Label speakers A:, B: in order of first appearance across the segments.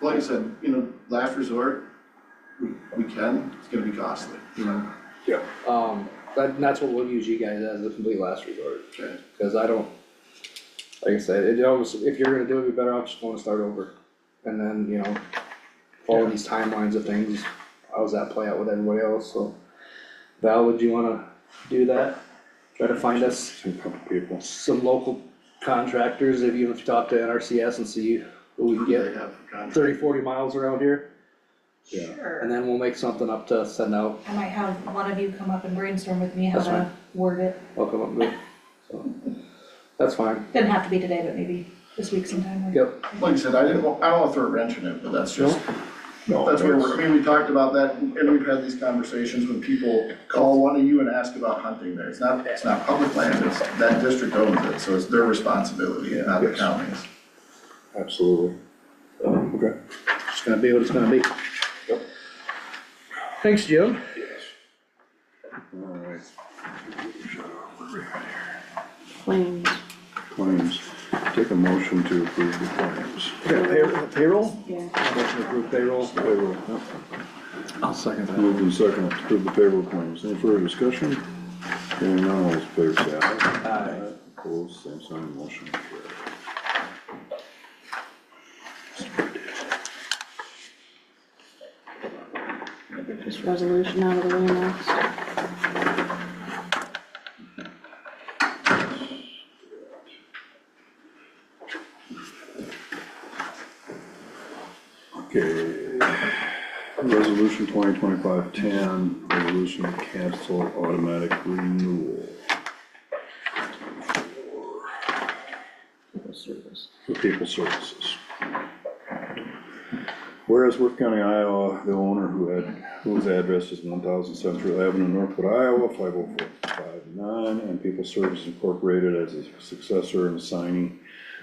A: like I said, you know, last resort, we, we can, it's gonna be costly, you know?
B: Um, but and that's what we'll use you guys as the complete last resort,
A: Okay,
B: cause I don't, like I said, it almost, if you're gonna do it, you better off just wanna start over. And then, you know, follow these timelines of things, how's that play out with everybody else, so. Val, would you wanna do that? Try to find us
C: Some couple people.
B: some local contractors, if you, if you talk to NRCS and see who
A: who
B: we can
A: do
B: get,
A: they have for contract?
B: thirty, forty miles around here,
C: Yeah.
B: and
D: Sure.
B: then we'll make something up to send out
D: I might have one of you come up and brainstorm with me how
B: That's
D: to word it.
B: I'll come up with, so, that's fine,
D: Doesn't have to be today, but maybe this week sometime. or-
B: yep,
A: Like I said, I didn't, wa- I don't wanna throw a wrench in it, but that's just,
C: No,
A: that's where
C: it's-
A: we're, I mean, we talked about that, and we've had these conversations when people call one of you and ask about hunting there, it's not, it's not public land, it's, that district owns it, so it's their responsibility, not the
C: Yes.
A: county's.
C: Absolutely. Okay.
B: it's gonna be what it's gonna be.
C: Yep.
B: Thanks, Jim.
C: Yes. Alright.
E: claims.
C: Claims. Take a motion to approve the claims.
B: Payroll?
E: Yeah.
B: Motion to approve payroll.
C: Payroll.
B: I'll second
C: Moved and seconded to approve the payroll claims. Any further discussion? Hearing none, all those in favor say aye.
B: Aye.
C: Opposed, same sign, motion carried.
E: Get this resolution out of the way next.
C: Okay. Resolution 2025-10, resolution to cancel automatic renewal.
E: Civil service.
C: for people services. Whereas Worth County, Iowa, the owner who had, whose address is one thousand Central Avenue, Northwood, Iowa, five oh four five nine, and People Services Incorporated as a successor and assignee,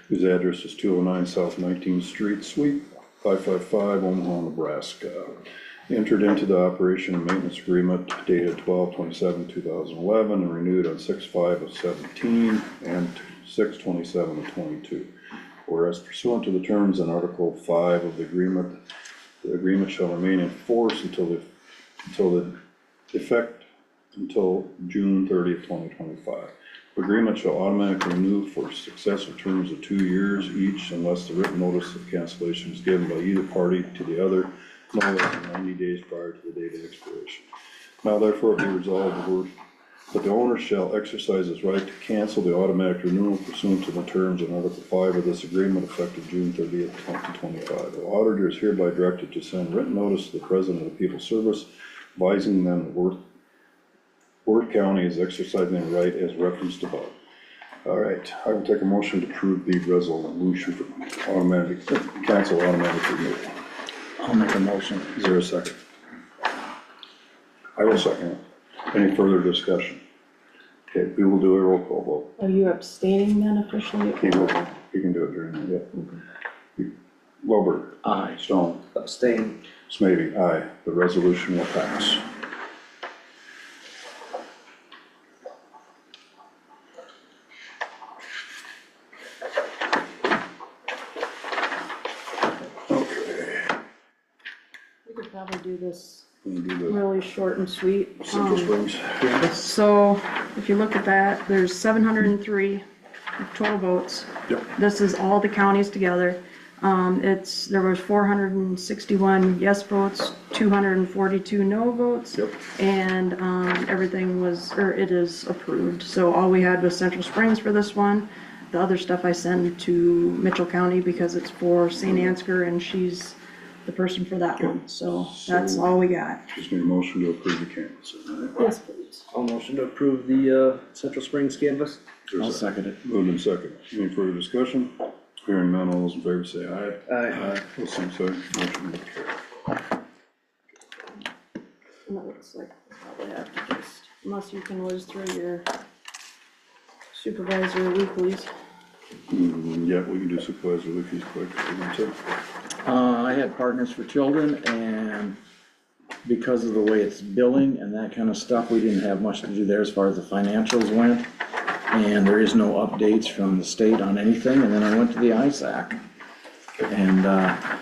C: whose address is two oh nine South Nineteenth Street, Suite five five five, Omaha, Nebraska. Entered into the operation and maintenance agreement dated twelve twenty-seven, two thousand eleven, and renewed on six five of seventeen and six twenty-seven of twenty-two. Whereas pursuant to the terms in Article five of the agreement, the agreement shall remain in force until the, until the effect until June thirtieth, twenty twenty-five. The Agreement shall automatically renew for successive terms of two years each unless the written notice of cancellation is given by either party to the other no less than ninety days prior to the date of expiration. Now therefore be resolved, the Board but the owner shall exercise his right to cancel the automatic renewal pursuant to the terms in Article five of this agreement effective June thirtieth, twenty twenty-five. The auditor is hereby directed to send written notice to the President of the People's Service advising them that Worth, Worth County is exercising their right as referenced above. All right, I will take a motion to approve the resolution for automatic, cancel automatic renewal. I'll make a motion. Is there a second? I will second it. Any further discussion? Okay, we will do a roll call vote.
E: Are you Oh, abstaining then officially?
C: You can- You can do it during the, yeah. Lowberg. Aye. Stone.
B: Abstain.
C: Smithy, aye. The resolution will pass. Okay.
E: We could probably do this
C: We'll do
E: really short and sweet.
C: the Central
E: Um,
C: Springs.
E: So if you look at that, there's seven hundred and three total votes.
C: Yep.
E: This is all the counties together. Um, it's, there was four hundred and sixty-one yes votes, two hundred and forty-two no votes.
C: Yep.
E: And, um, everything was, or it is approved. So all we had was Central Springs for this one. The other stuff I send to Mitchell County because it's for St. Ansker and she's the person for that one. So that's
C: So-
E: all we got.
C: Just need a motion to approve the canvas. all right?
E: Yes, please.
B: I'll motion to approve the, uh, Central Springs canvas.
C: There's a-
B: second it.
C: Moved and second. Any further discussion? Hearing none, all those in favor say aye.
B: Aye.
C: Those same sign, motion will carry.
E: And that looks like probably have to just, unless you can whiz through your supervisor weeklies.
C: Mm, Yeah, we can do supervisor Lucas quick, if you want to.
F: Uh, I had Partners for Children and because of the way it's billing and that kind of stuff, we didn't have much to do there as far as the financials went. And there is no updates from the state on anything. And then I went to the ISAC. And, uh,